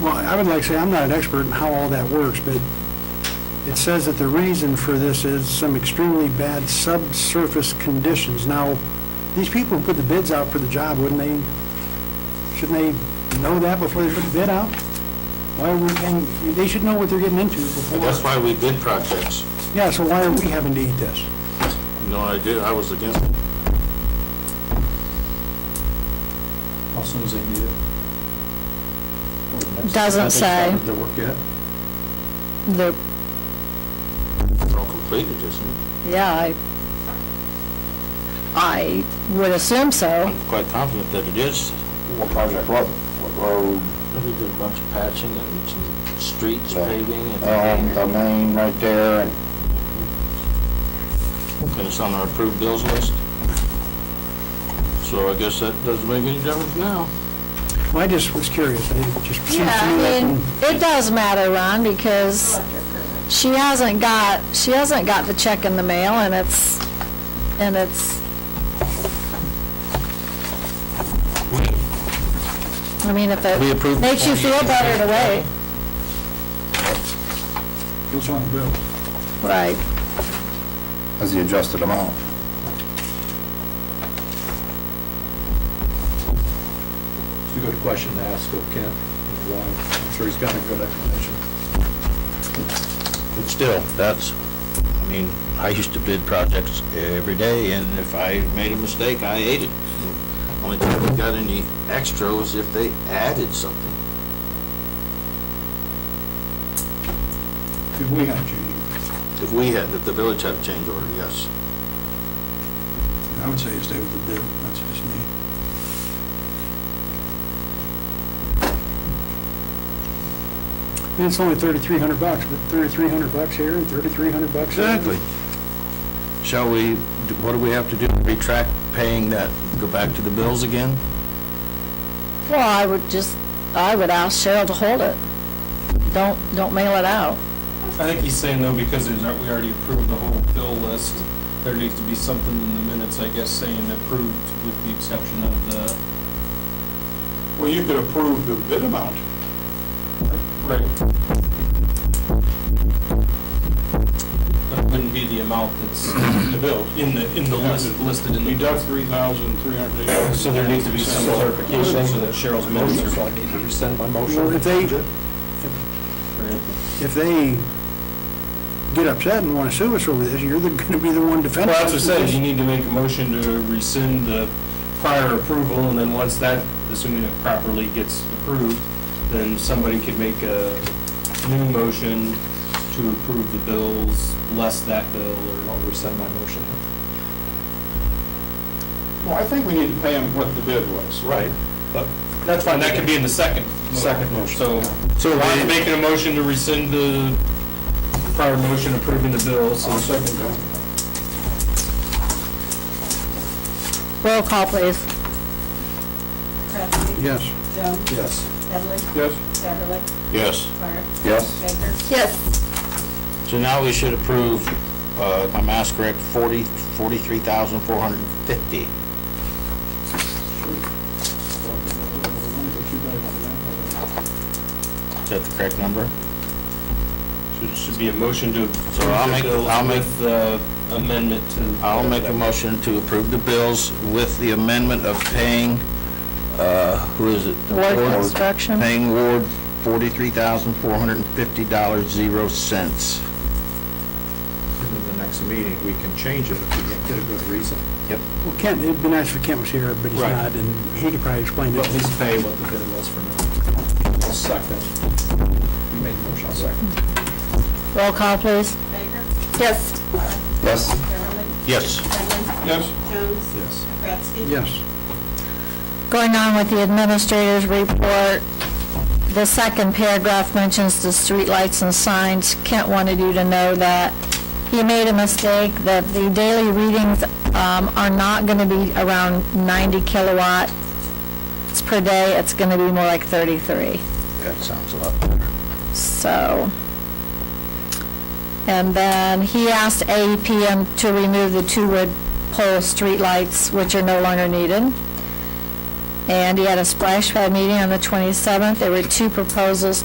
Well, I would like to say, I'm not an expert in how all that works, but it says that the reason for this is some extremely bad subsurface conditions. Now, these people who put the bids out for the job, wouldn't they, shouldn't they know that before they put the bid out? Why would, and they should know what they're getting into before. That's why we bid projects. Yeah, so why are we having to eat this? No, I did, I was against it. How soon as they need it? Or the next- Doesn't have they started say. Their work yet? The, It's all completed, isn't it? yeah, I, I would assume so. I'm quite confident that it is. What project, what, what road, We did a bunch of patching and some streets Yeah. paving and, um, the main right there, and and it's on our approved bills list. So I guess that doesn't make any difference now. Well, I just was curious, it just seems to me Yeah, I like, mean, it does matter, Ron, because she hasn't got, she hasn't got the check in the mail, and it's, and it's, I mean, if We approve the it makes you feel better to wait, What's on the bill? right. that's the adjusted amount. It's a good question to ask of Kent, you know, why, I'm sure he's got a good explanation. But still, that's, I mean, I used to bid projects every day, and if I made a mistake, I ate it. Only time I got any extra was if they added something. Did we have change? If we had, if the village had a change order, yes. I would say you stay with the bid, that's just me. and it's only 3,300 bucks, but 3,300 bucks here and 3,300 bucks there. Shall we, what do we have to do? Retract paying that, go back to the bills again? Well, I would just, I would ask Cheryl to hold it. Don't, don't mail it out. I think he's saying though, because there's, not- we already approved the whole bill list, there needs to be something in the minutes, I guess, saying approved with the exception of the. Well, you could approve the bid amount. Right. That wouldn't be the amount that's the bill, in the, in the list, listed in the. Deduct three thousand three hundred eighty. So there needs to be some clarification so that Cheryl's Motion, minutes so are. I need to rescind my Well, motion. if they, if they get upset and want to sue us over this, you're going to be the one defending Well, us. that's what I said, you need to make a motion to rescind the prior approval, and then once that, assuming it properly gets approved, then somebody could make a new motion to approve the bills, less that bill, or I'll rescind my motion. Well, I think we need to pay them what the bid was. Right, but that's fine, that could be in the second. Second motion. So, so Ron's making a motion to rescind the prior motion approving the bills, so Second bill. Roll call, please. Crabtree. Yes. Jones. yes. Headley. Yes. Beverly. Yes. Clark. Yes, Baker. Yes. So now we should approve, uh, if my math's correct, forty, forty-three thousand, four hundred and fifty. Is that the correct number? it should be a motion to approve So I'll the make- I'll bills make- with uh, the amendment to. I'll make a motion to approve the bills with the amendment of paying, uh, who is it? The Ward Construction. Paying Ward forty-three thousand, four hundred and fifty dollars, zero cents. And in the next meeting, we can change it if we get- get a good reason. Well, Kent, it'd be nice if Kent was here, but he's Right. not, and he could probably explain But it. at least pay what the bid was for now. I'll second. You made the motion, I'll second. Roll call, please. Baker. Yes. Clark. yes. Beverly. Yes. Headley. Yes. Jones. Yes. Kratzky. Yes. Going on with the administrator's report, the second paragraph mentions the streetlights and signs. Kent wanted you to know that he made a mistake, that the daily readings um, are not going to be around 90 kilowatts per day. It's going to be more like 33. That sounds a lot better. So, and then he asked AEPM to remove the two wood pole streetlights, which are no longer needed. And he had a splash pad meeting on the 27th. There were two proposals